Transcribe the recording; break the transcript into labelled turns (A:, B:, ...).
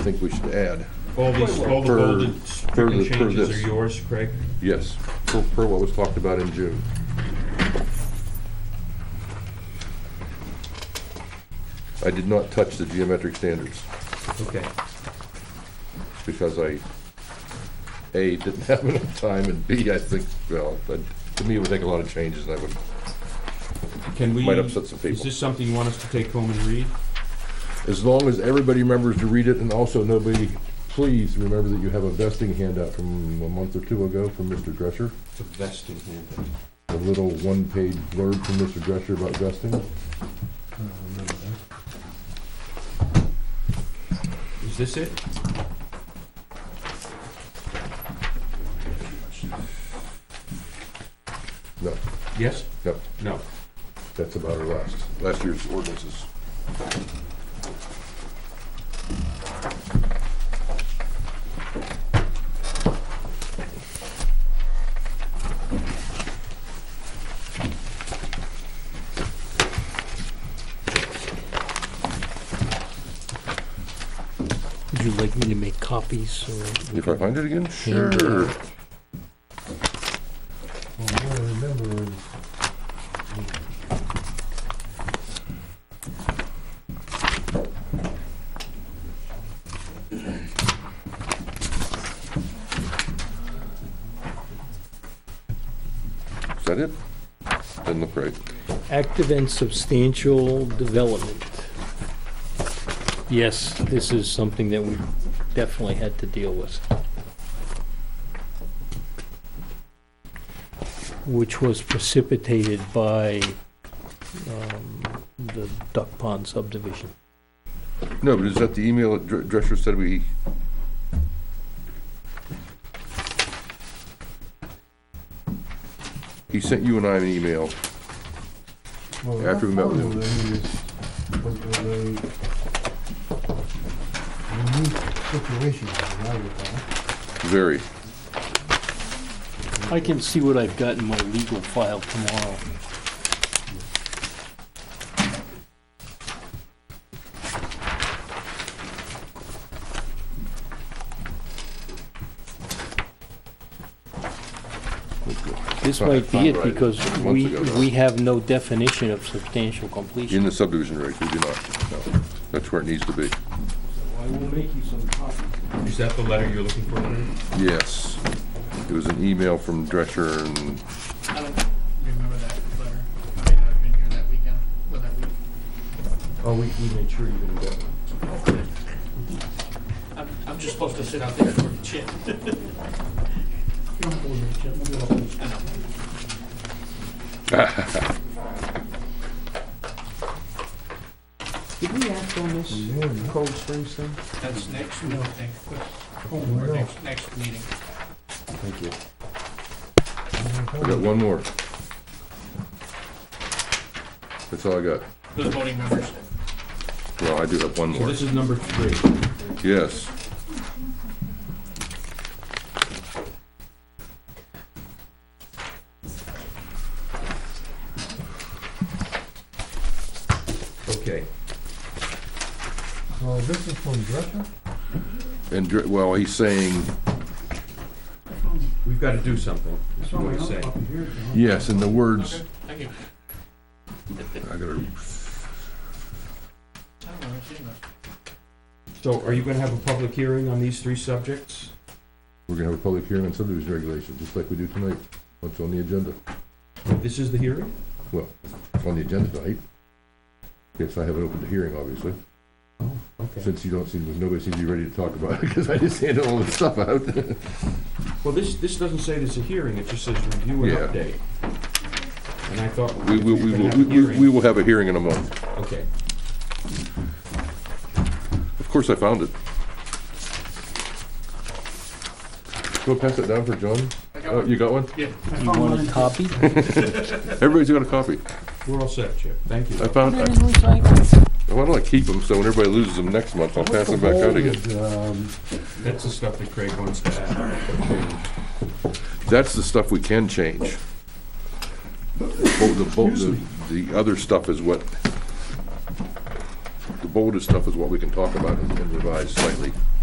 A: I think we should add,
B: All these, all the
A: Per-
B: bolded
A: per- per
B: stricken changes
A: this.
B: are yours, Craig?
A: yes, per, per what was talked about in June. I did not touch the geometric standards
B: Okay.
A: because I, A, didn't have enough time, and B, I think, well, that- to me, it would take a lot of changes, and I would,
B: Can we?
A: Might upset some
B: Is
A: people.
B: this something you want us to take home and read?
A: as long as everybody remembers to read it, and also nobody, please remember that you have a vesting handout from a month or two ago from Mr. Drescher.
B: It's a vesting handout.
A: a little one-page blurb from Mr. Drescher about vesting.
B: I don't remember that. Is this it?
A: No,
B: Yes?
A: no,
B: No.
A: that's about our last, last year's ordinances.
C: Would you like me to make copies or?
A: If I find it again?
C: Sure.
D: Well, what I remember is,
A: Is that it? Doesn't look right.
C: Active and substantial development. Yes, this is something that we definitely had to deal with. Which was precipitated by um, the Duck Pond subdivision.
A: No, but is that the email that Dr- Drescher said we? He sent you and I an email.
D: well,
A: After we met with him.
D: what I remember is, was a unique situation, as I recall.
A: Very.
C: I can see what I've got in my legal file tomorrow. This might be it because we, we have no definition of substantial
A: In
C: completion.
A: the subdivision regs, we do not. No. That's where it needs to be.
C: I will make you some copies.
B: Is that the letter you're looking for? Larry?
A: Yes. It was an email from Drescher and
E: I don't remember that letter. I may not have been here that weekend, or that week.
B: Oh, we, we made sure you didn't get it.
E: I'm, I'm just supposed to sit out there for a chip. You don't have to leave a chip, I'm gonna hold it. I know.
C: Did we act on this
D: And then-
C: Cold Springs thing?
E: That's next, no, thank,
D: Oh,
E: or
D: no.
E: next, next meeting.
B: Thank you.
A: I got one more. That's all I got.
E: Those voting members.
A: Well, I do have one
B: So
A: more.
B: this is number three.
A: Yes.
B: Okay.
D: Well, this is from Drescher?
A: And, Dr- well, he's saying,
B: We've got to do something, is what he's saying.
A: yes, in the words,
E: Okay, thank you.
A: I gotta,
E: I don't remember seeing that.
B: So are you going to have a public hearing on these three subjects?
A: we're gonna have a public hearing on subdivision regulations, just like we do tonight. What's on the agenda?
B: This is the hearing?
A: On the agenda tonight. Yes, I haven't opened the hearing, obviously,
B: Oh, okay.
A: since you don't seem, nobody seems to be ready to talk about it, because I just handed all this stuff out.
B: Well, this, this doesn't say there's a hearing, it just says review and
A: Yeah.
B: update. And I thought.
A: We
B: if
A: will,
B: you're
A: we
B: gonna
A: will,
B: have
A: we
B: a
A: will-
B: hearing-
A: we will have a hearing in a month.
B: Okay.
A: Of course, I found it. Go pass it down for John.
E: I got
A: Oh,
E: one.
A: you got one?
E: Yeah.
C: You want a copy?
A: Everybody's got a copy.
B: We're all set, Chip. Thank you.
A: I found, I why don't I keep them, so when everybody loses them next month, I'll pass them back out again.
D: um,
B: That's the stuff that Craig wants to add.
A: That's the stuff we can change. Bo- The, bo- the, the other stuff is what the bolded stuff is what we can talk about and and revise slightly.